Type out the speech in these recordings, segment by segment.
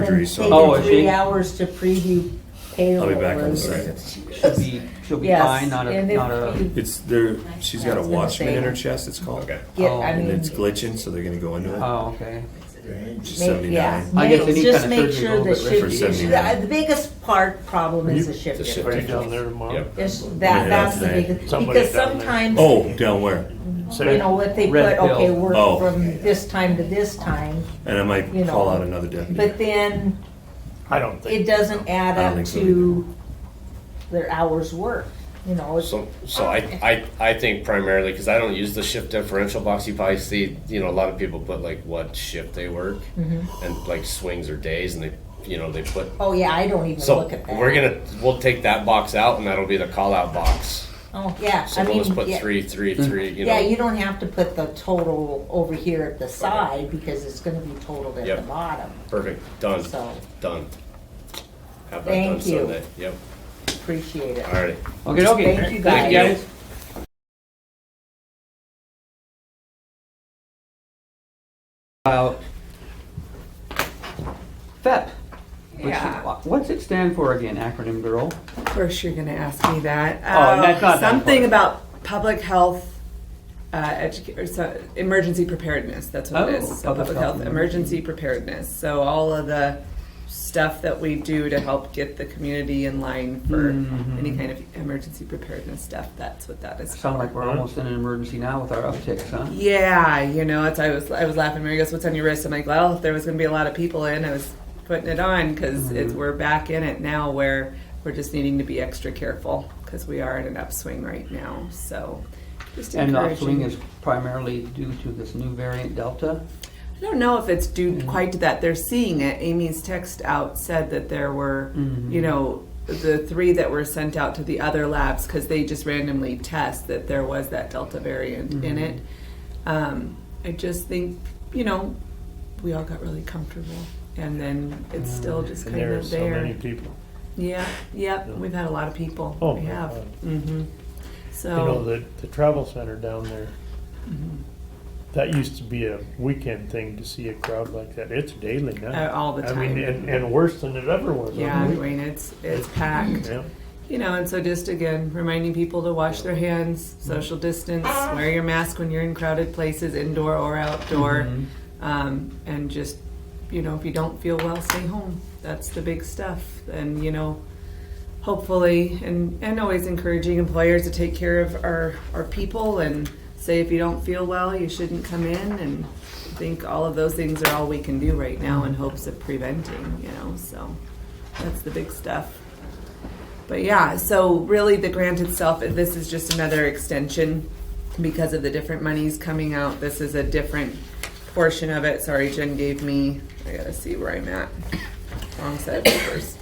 surgery, so- Oh, is is Taking three she? hours to preview payroll. I'll be back on and- the second. She'll be, she'll be Yes, fine, not a, and if not a, you It's there. She's got I a was gonna watchman say. in her chest. It's called. Okay. Get, Oh. I And it's mean, glitching, so they're gonna go into it. oh, okay. She's make, seventy Um, yeah, nine. I guess any make, just kind of make surgery sure will that get shift, rid of is- it. the the biggest part problem is the shift The shift difference. down there tomorrow. Yep. It's- Yeah, that, that's the okay. biggest, Somebody because down there. sometimes, Oh, down where? you know, what they put, Red pill. okay, work Oh. from this time to this time, And I might You know. call out another deputy. but then I don't it think, doesn't add I don't up think so to their hours worked, you know, it's So, so I, I, I think primarily, because I don't use the shift differential box, you probably see, you know, a lot of people put like what shift they work Mm-hmm. and like swings or days and they, you know, they put, Oh yeah, I don't even so look at that. we're gonna, we'll take that box out and that'll be the call out box. Oh yeah, So I we'll mean, just put yeah, three, three, three, you yeah, you know. don't have to put the total over here at the side because it's going to be totaled at the Yep. bottom. Perfect, done, So done. Have that done Thank you. Sunday, yep, appreciate it. all right. Okay, okay. Thank you Thank you. guys. About FEP. which- E What's it stand for again, acronym girl? Of course, you're going to ask me that. Oh, Um, that's not that something important. about public health. Uh, educa- or so, emergency preparedness. That's what it Oh, is. So public public, health health, and emergency preparedness. So all of the stuff that we do to help get the community in line for Mhm. any kind of emergency preparedness stuff. That's what that is. Sound like we're almost in an emergency now with our upticks, huh? Yeah, you know, it's I was I was laughing. Mary goes, "What's on your wrist?" I'm like, "Well, if there was going to be a lot of people in, I was putting it on because Mm-hmm. it's we're back in it now where we're just needing to be extra careful because we are in an upswing right now. So, just And the encouraging. upswing is primarily due to this new variant Delta. I don't know if it's due quite to that. They're seeing it. Amy's text out said that there were, Mm-hmm. you know, the three that were sent out to the other labs because they just randomly test that there was that Delta variant Mm-hmm. in it. Um, I just think, you know, we all got really comfortable. And then it's still just and kind there are of so there. many people. Yeah, yeah, we've had a lot of people. Oh, we my have. God. hmm You So, Mm-hmm. know, the, the travel center down there, that used to be a weekend thing to see a crowd like that. It's daily uh, now. all the I time. mean, and, and worse than it ever was. yeah, I mean, it's, it's packed. Yeah. You know, and so just again, reminding people to wash their hands, social distance, wear your mask when you're in crowded places, indoor or outdoor, um, and just, you know, if you don't feel well, stay home. That's the big stuff. And, you know, hopefully, and, and always encouraging employers to take care of our, our people and say if you don't feel well, you shouldn't come in. And I think all of those things are all we can do right now in hopes of preventing, you know, so that's the big stuff. But yeah, so really the grant itself, this is just another extension because of the different monies coming out. This is a different portion of it. Sorry, Jen gave me, I gotta see where I'm at. Wrong set of papers.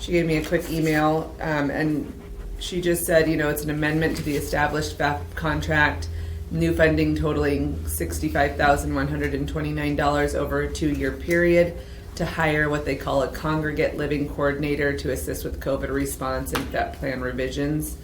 She gave me a quick email um, and she just said, you know, it's an amendment to the established FAP contract. New funding totaling sixty-five thousand one hundred and twenty-nine dollars over a two-year period to hire what they call a congregate living coordinator to assist with COVID response and FEP plan revisions.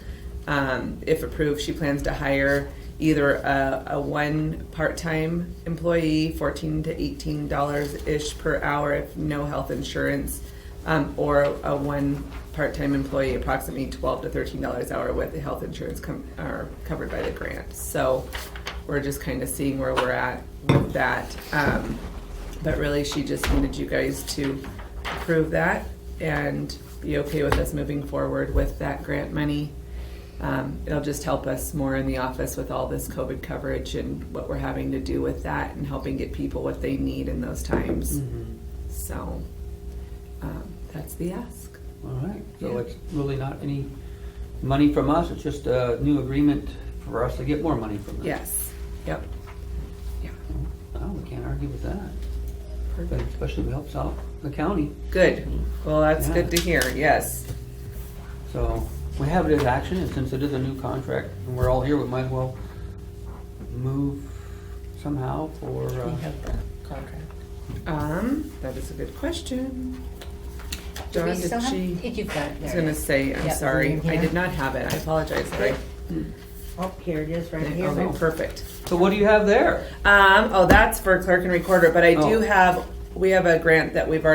Um, if approved, she plans to hire either a, a one part-time employee, fourteen to eighteen dollars ish per hour if no health insurance, um, or a one part-time employee, approximately twelve to thirteen dollars an hour with the health insurance com- are covered by the grant. So we're just kind of seeing where we're at with that. Um, but really, she just needed you guys to approve that and be okay with us moving forward with that grant money. Um, it'll just help us more in the office with all this COVID coverage and what we're having to do with that and helping get people what they need in those times. So um, that's the ask. All right, so Yeah. it's really not any money from us, it's just a new agreement for us to get more money from them. Yes. Yep. Oh, we can't argue with that, but Perfect. especially if it helps out the county. Good. Well, that's Yeah. good to hear. Yes. So we have it as action, and since it is a new contract, and we're all here, we might as well move somehow for, We uh, have the contract. Um, that is a good question. Do Dawn, we did still have- she- Did you got it I was there, gonna yeah. say, I'm Yeah, sorry, in I here. did not have it, I apologize, Lori. Oh, here it is, right here. Okay, perfect. so what do you have there? Um, oh, that's for clerk and recorder, but I do Oh. have we have a grant that we've already